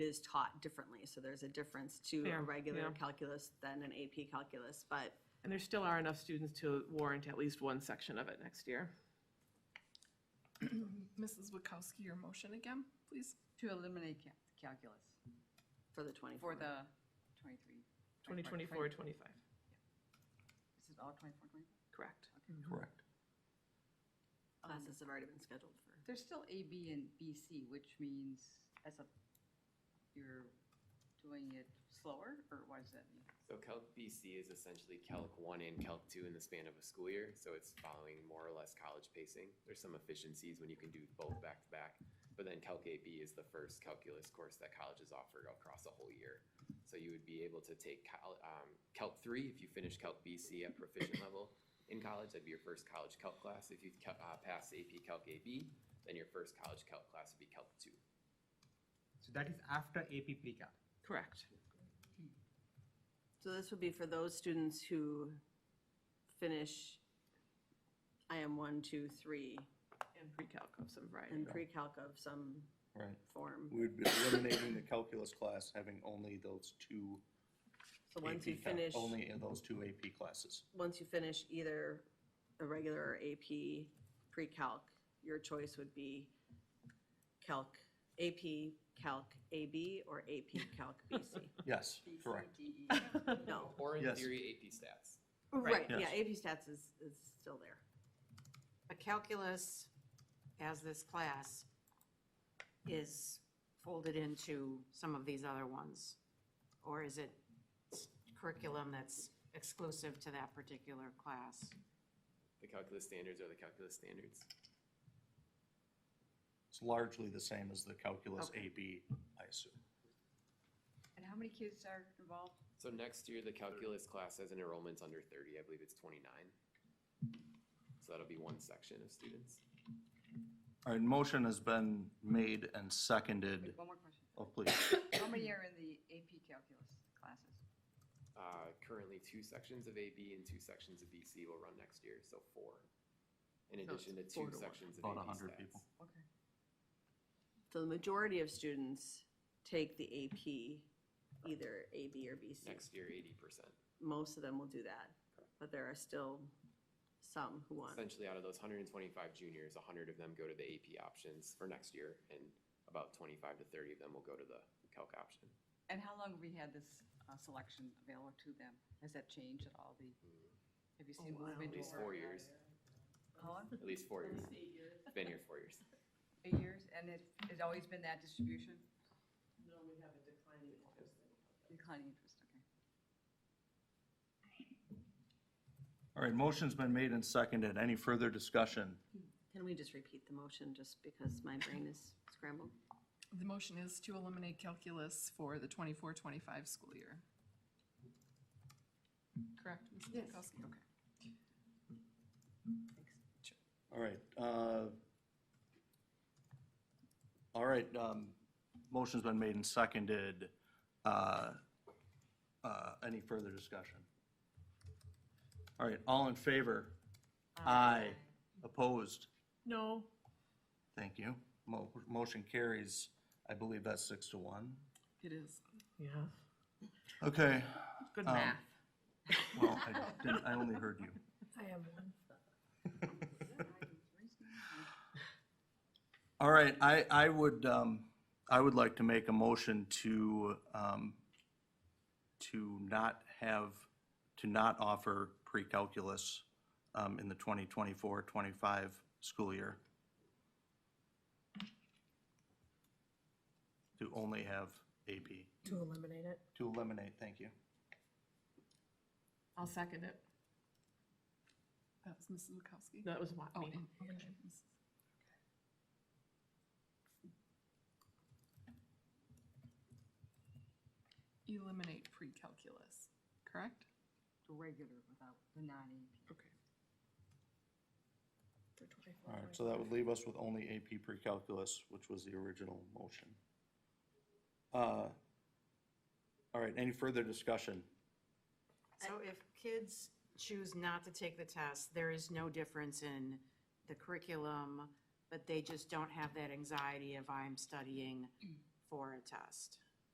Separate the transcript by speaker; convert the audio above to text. Speaker 1: is taught differently. So there's a difference to a
Speaker 2: Fair,
Speaker 1: regular
Speaker 2: yeah.
Speaker 1: calculus than an AP calculus, but
Speaker 2: And there still are enough students to warrant at least one section of it next year.
Speaker 3: Mrs. Witkowski, your motion again, please?
Speaker 4: To eliminate ca- calculus
Speaker 1: for the twenty-four.
Speaker 4: for the twenty-three.
Speaker 2: 2024, 25,
Speaker 4: Is it all twenty-four, twenty-five?
Speaker 2: correct.
Speaker 5: Correct.
Speaker 4: um,
Speaker 1: Classes have already been scheduled for.
Speaker 4: There's still A, B, and B, C, which means as a, you're doing it slower, or what does that mean?
Speaker 6: So Calc BC is essentially Calc one and Calc two in the span of a school year, so it's following more or less college pacing. There's some efficiencies when you can do both back to back, but then Calc AB is the first calculus course that colleges offer across a whole year. So you would be able to take Cal, um, Calc three if you finish Calc BC at proficient level in college, that'd be your first college Calc class. If you cal- uh, pass AP Calc AB, then your first college Calc class would be Calc two.
Speaker 5: So that is after AP pre-calc.
Speaker 2: Correct.
Speaker 1: So this would be for those students who finish IM one, two, three,
Speaker 2: And pre-calc of some variety.
Speaker 1: and pre-calc of some
Speaker 7: Right.
Speaker 1: form.
Speaker 7: We'd be eliminating the calculus class, having only those two.
Speaker 1: So once
Speaker 7: AP
Speaker 1: you
Speaker 7: cal-
Speaker 1: finish,
Speaker 7: Only in those two AP classes.
Speaker 1: once you finish either a regular or AP pre-calc, your choice would be calc, AP calc AB or AP calc BC.
Speaker 7: Yes,
Speaker 4: B, C,
Speaker 7: correct.
Speaker 4: D, E, F.
Speaker 1: No,
Speaker 6: Or in
Speaker 7: Yes.
Speaker 6: theory, AP stats.
Speaker 1: right,
Speaker 2: Right.
Speaker 1: yeah, AP stats is, is still there.
Speaker 8: But calculus, as this class, is folded into some of these other ones? Or is it s- curriculum that's exclusive to that particular class?
Speaker 6: The calculus standards are the calculus standards.
Speaker 7: It's largely the same as the calculus
Speaker 8: Okay.
Speaker 7: AB, I assume.
Speaker 4: And how many kids are involved?
Speaker 6: So next year, the calculus class has an enrollment's under thirty, I believe it's twenty-nine. So that'll be one section of students.
Speaker 7: All right, motion has been made and seconded.
Speaker 4: Wait, One more question.
Speaker 7: Oh, please.
Speaker 4: How many are in the AP calculus classes?
Speaker 6: Uh, currently, two sections of AB and two sections of BC will run next year, so four. In
Speaker 2: So it's four
Speaker 6: addition to
Speaker 2: to
Speaker 6: two
Speaker 2: one.
Speaker 6: sections of
Speaker 7: About
Speaker 6: AB stats.
Speaker 7: 100 people.
Speaker 4: Okay.
Speaker 1: So the majority of students take the AP, either AB or BC.
Speaker 6: Next year, eighty percent.
Speaker 1: Most of them will do that, but there are still some who want.
Speaker 6: Essentially, out of those hundred and twenty-five juniors, hundred of them go to the AP options for next year, and about twenty-five to thirty of them will go to the calc option.
Speaker 4: And how long have we had this uh, selection available to them? Has that changed at all? The, have you seen movement?
Speaker 6: At least
Speaker 4: over-
Speaker 6: four years,
Speaker 4: How long?
Speaker 6: at least four years. Been here four years.
Speaker 4: Eight years? And it, it's always been that distribution? No, we have a declining interest.
Speaker 7: All right, motion's been made and seconded. Any further discussion?
Speaker 1: Can we just repeat the motion just because my brain is scrambled?
Speaker 3: The motion is to eliminate calculus for the 24-25 school year. Correct, Mrs. Witkowski? Okay.
Speaker 7: All right. uh, All right, um, motion's been made and seconded. Uh, uh, Any further discussion? All right, all in favor? Aye. Opposed?
Speaker 2: No,
Speaker 7: Thank you. Mo- Motion carries, I believe that's six to one.
Speaker 3: It is.
Speaker 2: yeah,
Speaker 7: Okay,
Speaker 2: good
Speaker 7: Um,
Speaker 2: math.
Speaker 7: well, I didn't, I only heard you. All right, I, I would, um, I would like to make a motion to, um, to not have, to not offer pre-calculus, um, in the 2024, 25 school year. To only have AP.
Speaker 9: To eliminate it?
Speaker 7: To eliminate, thank you.
Speaker 2: I'll second it.
Speaker 3: That was Mrs. Witkowski?
Speaker 2: That was what
Speaker 3: Oh,
Speaker 2: me.
Speaker 3: and- okay. Mrs. Eliminate pre-calculus, correct?
Speaker 4: The regular without the non-AP.
Speaker 3: Okay.
Speaker 9: For 24,
Speaker 7: All right, so that would leave us with only AP pre-calculus, which was the original motion. Uh, All right, any further discussion?
Speaker 8: So if kids choose not to take the test, there is no difference in the curriculum, but they just don't have that anxiety of I'm studying for a test.